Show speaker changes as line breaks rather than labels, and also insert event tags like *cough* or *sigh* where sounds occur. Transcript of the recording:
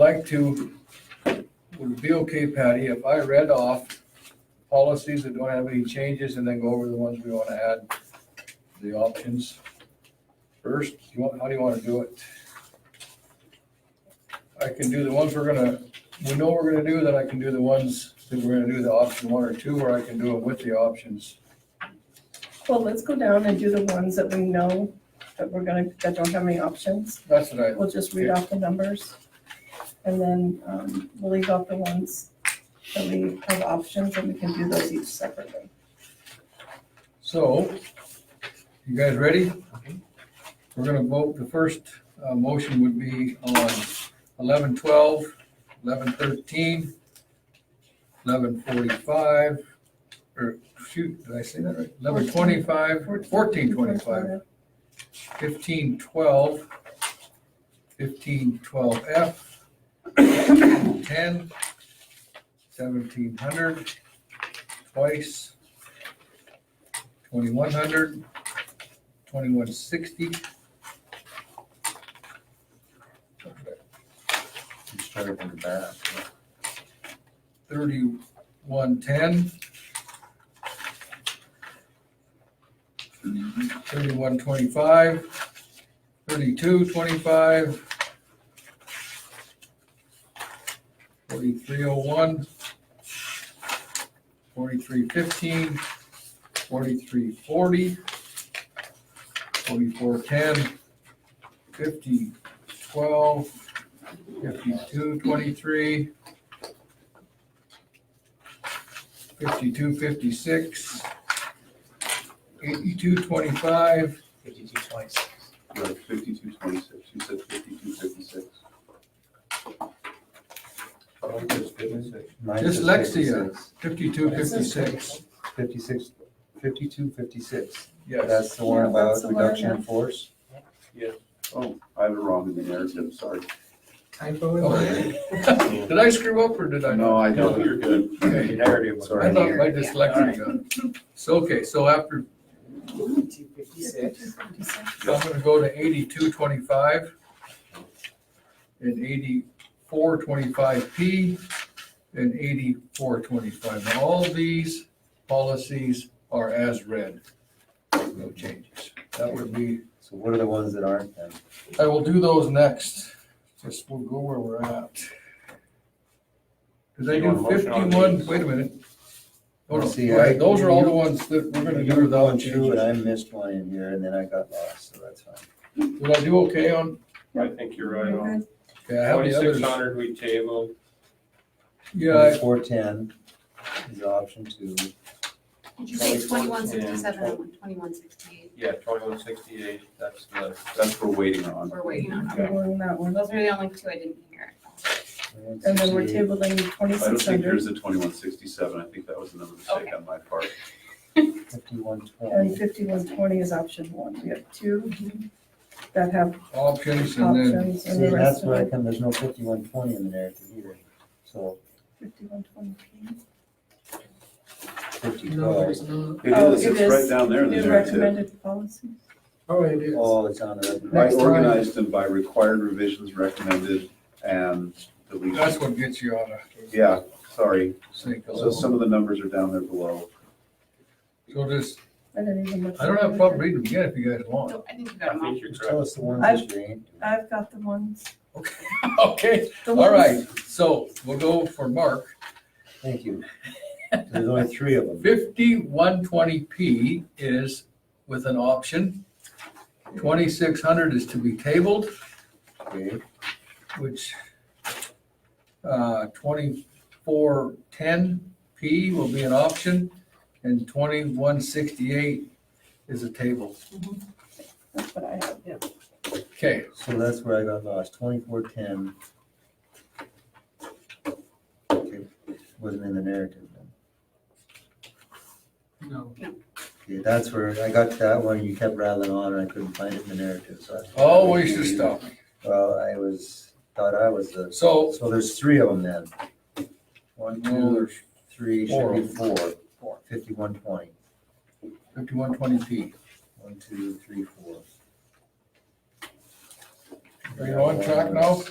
like to, would it be okay, Patty, if I read off policies that don't have any changes and then go over the ones we want to add, the options? First, you want, how do you want to do it? I can do the ones we're gonna, we know we're gonna do, then I can do the ones that we're gonna do, the option one or two, or I can do it with the options.
Well, let's go down and do the ones that we know that we're gonna, that don't have any options.
That's what I,
We'll just read off the numbers. And then, um, we'll leave off the ones that we have options and we can do those each separately.
So, you guys ready? We're gonna vote, the first uh, motion would be on eleven twelve, eleven thirteen, eleven forty-five, or, shoot, did I say that right? Eleven twenty-five, fourteen twenty-five, fifteen twelve, fifteen twelve F, ten, seventeen hundred, twice, 2100, 2160.
Just trying to bring it back.
3110. 3125, 3225, 4301, 4315, 4340, 4410, 5012, 5223, 52, 56, 82, 25,
Fifty-two twice.
Like fifty-two twenty-six, you said fifty-two fifty-six.
Dyslexia. 52, 56.
Fifty-six, fifty-two, fifty-six.
Yes,
That's the one
Yeah, that's
about
the one
reduction in
that- *coughs*
force?
Oh, I have it wrong in the narrative, sorry.
Typo in
Okay.
there.
Did I screw up or did I
No,
not?
I
No,
don't.
you're
good.
Okay. I
Sorry.
thought my dyslexia got it. So, okay, so after,
Fifty-two fifty-six.
so I'm gonna go to 82, 25 and 84, 25P and 84, 25. Now, all these policies are as read. No changes. That would be
So what are the ones that aren't then?
I will do those next, just we'll go where we're at. Cause I
You want
do
a motion on
fifty-one,
these?
wait a minute. Oh, no,
See,
wait,
I-
those are all the ones that we're gonna
You
do
were going
without changes.
through and I missed one in here and then I got lost, so that's fine.
Did I do okay on,
I think you're right on.
okay, I have the
Twenty-six
others.
hundred we tabled,
Yeah, I-
Four ten is option two.
Did you say twenty-one
2167
sixty-seven
and
and twenty-one sixty-eight?
yeah, twenty-one sixty-eight, that's the,
That's what we're waiting on.
We're waiting on,
We're doing that one.
those are the only two I didn't hear.
And then we're
168.
tabling
I don't
twenty-six
think
hundred
there's a twenty-one sixty-seven, I think that was another mistake
Okay.
on my part.
Fifty-one
and
twelve.
fifty-one twenty is option one. We have two that have
options and then,
options and
See,
the
and that's
rest of
where I
it.
come, there's no fifty-one twenty in the narrative either. So
Fifty-one twenty P.
fifty
No,
twelve,
there's not.
It
Oh,
is,
it
it's
is.
right down there in the
New
narrative.
recommended policies.
Oh, it is.
oh, it's on the.
I
Next time.
organized them by required revisions recommended and
that's
deletion.
what gets you out of
Yeah, sorry.
sync a
So
little.
some of the numbers are down there below.
So just,
I didn't even look.
I don't have a problem reading them again if you guys want.
So I think you got
I
them all.
think you're
Just
correct.
Tell us the ones
I've-
that you ain't. doing.
I've got the ones.
*laughs* Okay,
the
all
ones-
right, so we'll go for Mark.
Thank you. There's only three of them.
Fifty-one twenty P is with an option. Twenty-six hundred is to be tabled.
Okay,
which uh, 2410P will be an option, and 2168 is a table.
That's what I have.
Okay,
so that's where I got lost, twenty-four ten. Wasn't in the narrative then.
No.
Okay, that's where I got to that one, you kept rattling on and I couldn't find it in the narrative, so. I-
always the stuff.
Well, I was, thought I was the,
So,
so there's three of them then. One,
no,
two,
there's
three, should be four.
Four.
Fifty-one twenty,
5120P.
one, two, three, four.
Are you on track now?